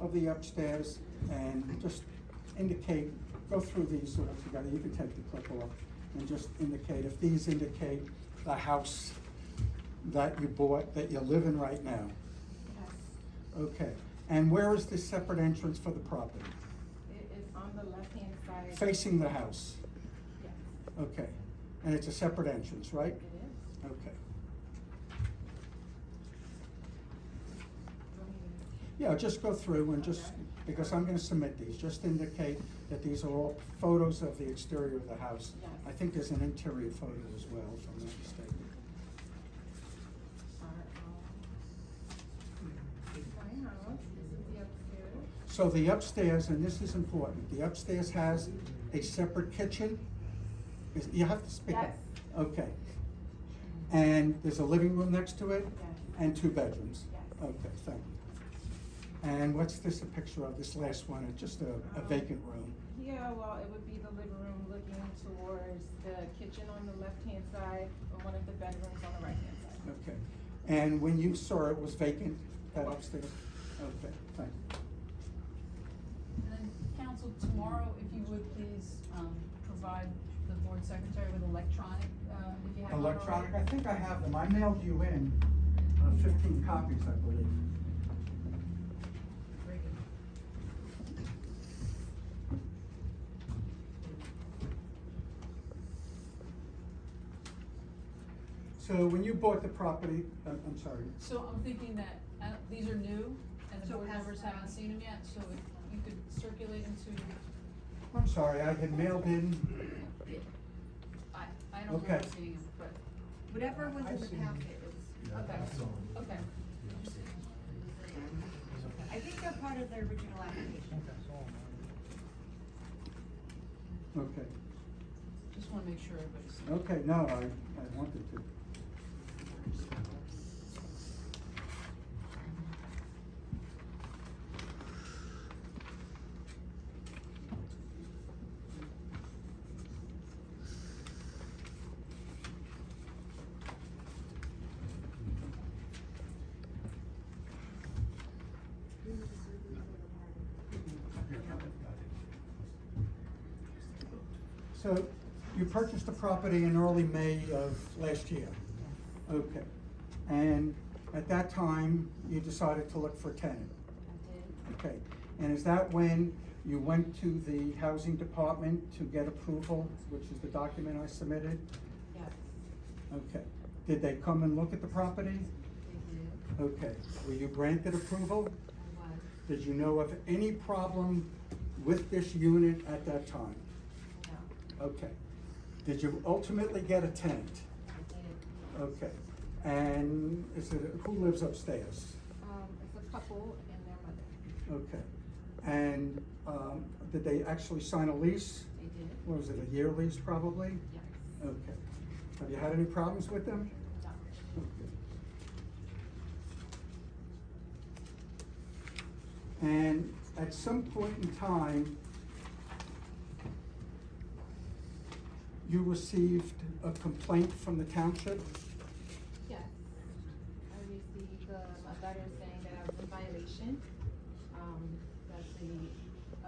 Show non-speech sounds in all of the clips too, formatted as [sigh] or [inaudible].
of the upstairs and just indicate, go through these sort of together, you can take the clip off, and just indicate, if these indicate the house that you bought, that you live in right now. Yes, Okay, and where is the separate entrance for the property? it is on the left-hand side. Facing the house, Yes, okay, and it's a separate entrance, right? it is. Okay, Go ahead. yeah, just go through and just, because I'm gonna submit these, just indicate that these are all photos of the exterior of the house. Yes. I think there's an interior photo as well, if I'm not mistaken. Our house. My house, this is the upstairs. So the upstairs, and this is important, the upstairs has a separate kitchen? Is- You have to speak up. Yes. Okay. And there's a living room next to it? Yes. And two bedrooms? Yes. Okay, thank you. And what's this a picture of, this last one, it's just a a Um, vacant room? Yeah, well, it would be the living room looking towards the kitchen on the left-hand side, or one of the bedrooms on the right-hand side. Okay. And when you saw it was vacant, that upstairs? Okay, thank you. And then, council, tomorrow, if you would please, um, provide the board secretary with electronic, uh, um, if you have one already. Electronic, I think I have them, I mailed you in uh, fifteen copies, I believe. Very good. So when you bought the property, I'm I'm sorry, So I'm thinking that, uh, these are new, and the So board pass members them haven't out. seen them yet, so if you could circulate into, I'm sorry, I had mailed in I, I don't remember Okay. seeing them, but, Whatever was in I've the seen- packet was, okay, okay. I think they're part of their original application. Okay, Just wanna make sure everybody's. okay, no, I, I wanted to. So you purchased the property in early May of last year? Okay, and at that time, you decided to look for a tenant? Okay, and is that when you went to the housing department to get approval, which is the document I submitted? Yes, Okay, did they come and look at the property? they did, Okay, were you granted approval? I was, Did you know of any problem with this unit at that time? no, Okay. Did you ultimately get a tenant? I did. Okay. And is it, who lives upstairs? Um, it's a couple and their mother. Okay. And, um, did they actually sign a lease? They did, What was it, a year lease probably? yes, Okay. Have you had any problems with them? no. Okay. And at some point in time, you received a complaint from the township? Yes. I received um, a letter saying that I was in violation, um, that the,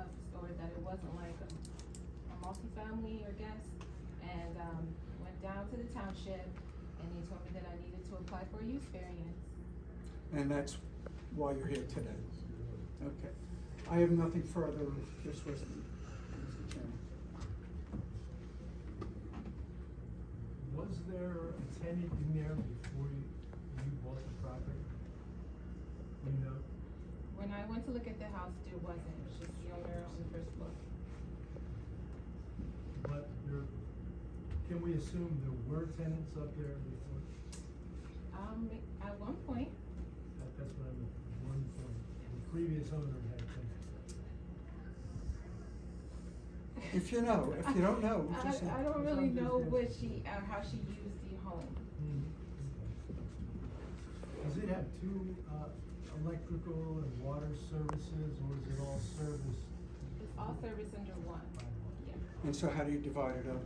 of, or that it wasn't like a, a multifamily or guest. And, um, went down to the township and they told me that I needed to apply for a use variance. And that's why you're here today? Okay. I have nothing further, this was, Mr. Chairman. Was there a tenant in there before you, you bought the property? You know, When I went to look at the house, there wasn't, it was just the owner on the first floor. but there, can we assume there were tenants up there before? Um, at one point, That, that's what I'm, one point, the previous owner had tenants. If you know, if you don't know, [laughs] I, just- I don't really know what she, uh, how she used the home. Hmm, Does it have two, uh, electrical and water services, or is it all serviced It's all service under one, by one? yeah. And so how do you divide it up?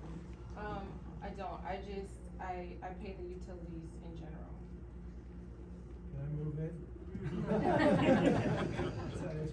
Um, I don't, I just, I, I pay the utilities in general. [laughs] [laughs] Can I move in? That's